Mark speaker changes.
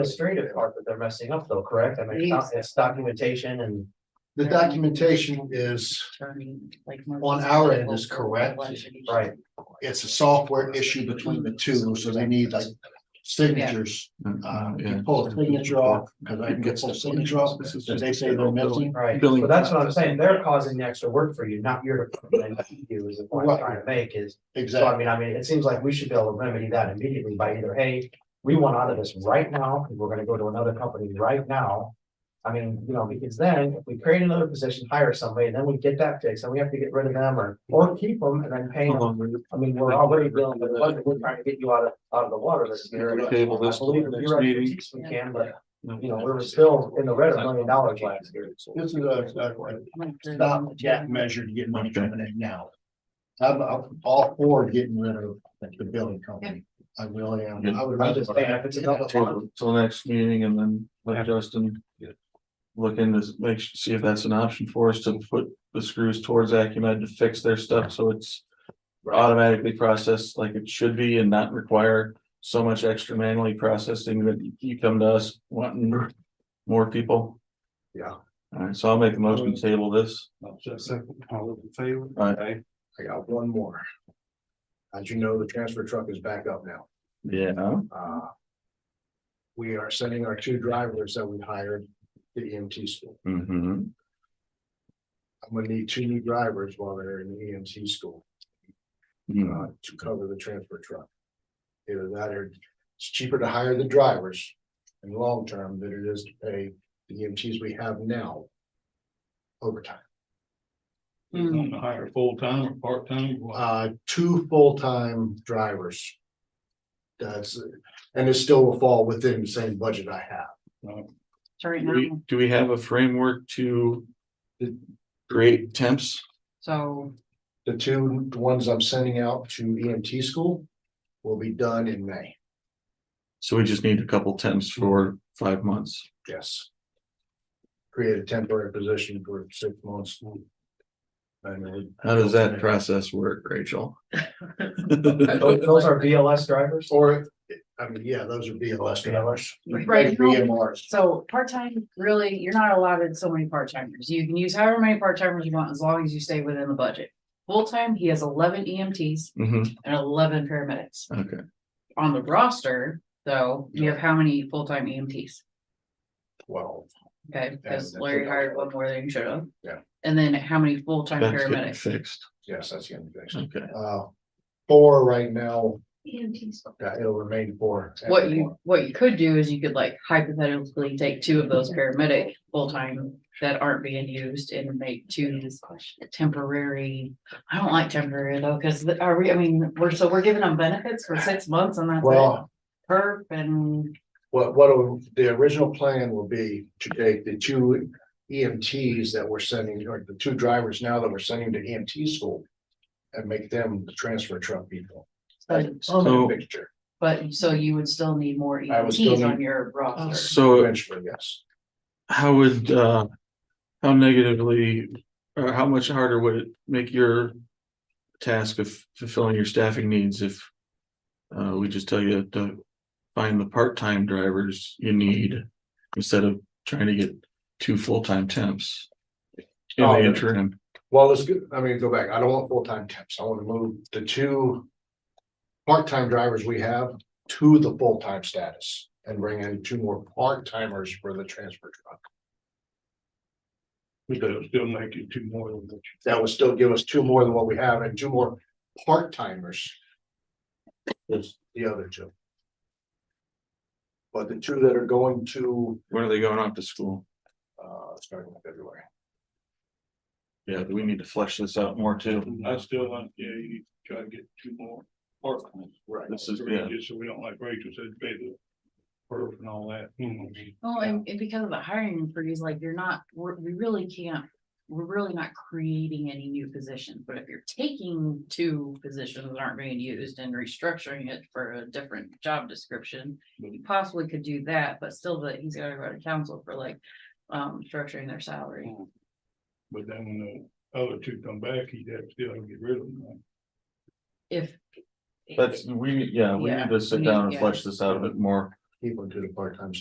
Speaker 1: administrative part that they're messing up though, correct? I mean, it's doc- it's documentation and
Speaker 2: The documentation is,
Speaker 3: On our end is correct,
Speaker 1: Right.
Speaker 2: it's a software issue between the two, so they need like signatures. Uh,
Speaker 4: Um,
Speaker 2: you
Speaker 4: yeah.
Speaker 2: pull a signature off, because I can get full signature off,
Speaker 4: This is
Speaker 2: that
Speaker 4: just-
Speaker 2: they say they're missing.
Speaker 1: Right,
Speaker 4: Billing.
Speaker 1: so that's what I'm saying, they're causing the extra work for you, not your department, you is the point I'm trying to make is. So I
Speaker 2: Exactly,
Speaker 1: mean, I mean, it seems like we should be able to remedy that immediately by either, hey, we want out of this right now, and we're gonna go to another company right now. I mean, you know, because then if we create another position, hire somebody, and then we get that fixed, and we have to get rid of them or, or keep them and then pay
Speaker 4: Hold
Speaker 1: them.
Speaker 4: on, we're-
Speaker 1: I mean, we're already dealing with, the budget. we're trying to get you out of, out of the water this year. I
Speaker 4: Table this till
Speaker 1: believe
Speaker 4: the
Speaker 1: in
Speaker 4: next
Speaker 1: your
Speaker 4: meeting.
Speaker 1: expertise we can, but, you know, we were still in the red a million dollars last year.
Speaker 2: this is a, a stop gap measure to get money coming in now. I'm, I'm all for getting rid of the billing company, I really am, I would
Speaker 1: I'm just saying, if it's another one,
Speaker 4: Till till next meeting and then let Justin. Look into, make, su- see if that's an option for us to put the screws towards Acumen to fix their stuff, so it's. Automatically processed like it should be and not require so much extra manually processing that you- you come to us wanting more people.
Speaker 5: Yeah.
Speaker 4: Alright, so I'll make the motion to table this.
Speaker 5: Second, all in favor?
Speaker 4: Aye.
Speaker 5: I got one more. As you know, the transfer truck is back up now.
Speaker 4: Yeah.
Speaker 5: Uh. We are sending our two drivers that we hired to EMT school.
Speaker 4: Mm-hmm.
Speaker 5: I'm gonna need two new drivers while they're in EMT school uh, to cover the transfer truck. Either that or it's cheaper to hire the drivers in the long term than it is to pay the EMTs we have now. Overtime.
Speaker 3: Mm.
Speaker 6: Hire full-time or part-time, well,
Speaker 5: uh, two full-time drivers. That's, and it still will fall within the same budget I have.
Speaker 3: So right
Speaker 4: Do we,
Speaker 3: now,
Speaker 4: do we have a framework to create temps?
Speaker 3: so
Speaker 5: The two ones I'm sending out to EMT school will be done in May,
Speaker 4: So we just need a couple temps for five months.
Speaker 5: yes. Create a temporary position for six months. And then-
Speaker 4: How does that process work, Rachel? Mm-hmm,
Speaker 1: Those those are BLS drivers?
Speaker 5: Or, I mean, yeah, those would be less hours.
Speaker 3: Right.
Speaker 5: BMRs.
Speaker 3: So part-time, really, you're not allotted so many part-timers. You can use however many part-timers you want as long as you stay within the budget. Full-time, he has eleven EMTs
Speaker 4: Mhm,
Speaker 3: and eleven paramedics.
Speaker 4: okay,
Speaker 3: On the roster, though, you have how many full-time EMTs?
Speaker 5: Well,
Speaker 3: Okay, because
Speaker 5: that's-
Speaker 3: Larry hired one more than you should have.
Speaker 5: Yeah.
Speaker 3: And then how many full-time
Speaker 4: that's getting
Speaker 3: paramedics?
Speaker 4: fixed,
Speaker 5: yes, that's the end of it.
Speaker 4: okay.
Speaker 5: Uh, four right now,
Speaker 3: EMTs.
Speaker 5: yeah, it'll remain four.
Speaker 3: What you, what you could do is you could like hypothetically take two of those paramedic full-time that aren't being used and make two temporary. I don't like temporary though, because are we, I mean, we're, so we're giving them benefits for six months and that's it.
Speaker 5: Well,
Speaker 3: Perp and,
Speaker 5: What, what the original plan will be to take the two EMTs that we're sending, or the two drivers now that we're sending to EMT school. And make them the transfer truck people.
Speaker 4: So-
Speaker 5: Permanent fixture,
Speaker 3: but so you would still need more
Speaker 5: I would still
Speaker 3: EMTs on
Speaker 5: need-
Speaker 3: your roster.
Speaker 4: So
Speaker 5: eventually, yes.
Speaker 4: how would, uh, how negatively, or how much harder would it make your task of fulfilling your staffing needs if uh, we just tell you to find the part-time drivers you need instead of trying to get two full-time temps in
Speaker 5: Oh,
Speaker 4: the
Speaker 5: yeah.
Speaker 4: interim?
Speaker 5: Well, let's go, I mean, go back. I don't want full-time temps. I want to move the two. Part-time drivers we have to the full-time status and bring in two more part-timers for the transfer truck.
Speaker 6: we could still make it two more than what
Speaker 5: That would still give us two more than what we have and two more part-timers. Is the other two. But the two that are going to,
Speaker 4: When are they going off to school?
Speaker 5: uh, starting in February.
Speaker 4: Yeah, we need to flesh this out more too.
Speaker 3: Mm-hmm.
Speaker 6: you- I still want, yeah, you try to get two more part-time.
Speaker 5: Right.
Speaker 4: This is, yeah,
Speaker 6: Just so we don't like Rachel said, pay the perf and all that. Hmm. you know,
Speaker 3: Well, and, and because of the hiring freeze, like you're not, we're, we really can't, we're really not creating any new positions, but if you're taking two positions that aren't being used and restructuring it for a different job description, you possibly could do that, but still that he's gotta go to council for like, um, structuring their salary.
Speaker 6: But then when the other two come back, he'd have to still get rid of them.
Speaker 3: If.
Speaker 4: that's, we, yeah, we
Speaker 3: Yeah,
Speaker 4: need to sit
Speaker 3: we
Speaker 4: down
Speaker 3: need-
Speaker 4: and
Speaker 3: yeah.
Speaker 4: flesh this out a bit more.
Speaker 5: keep them to the part-time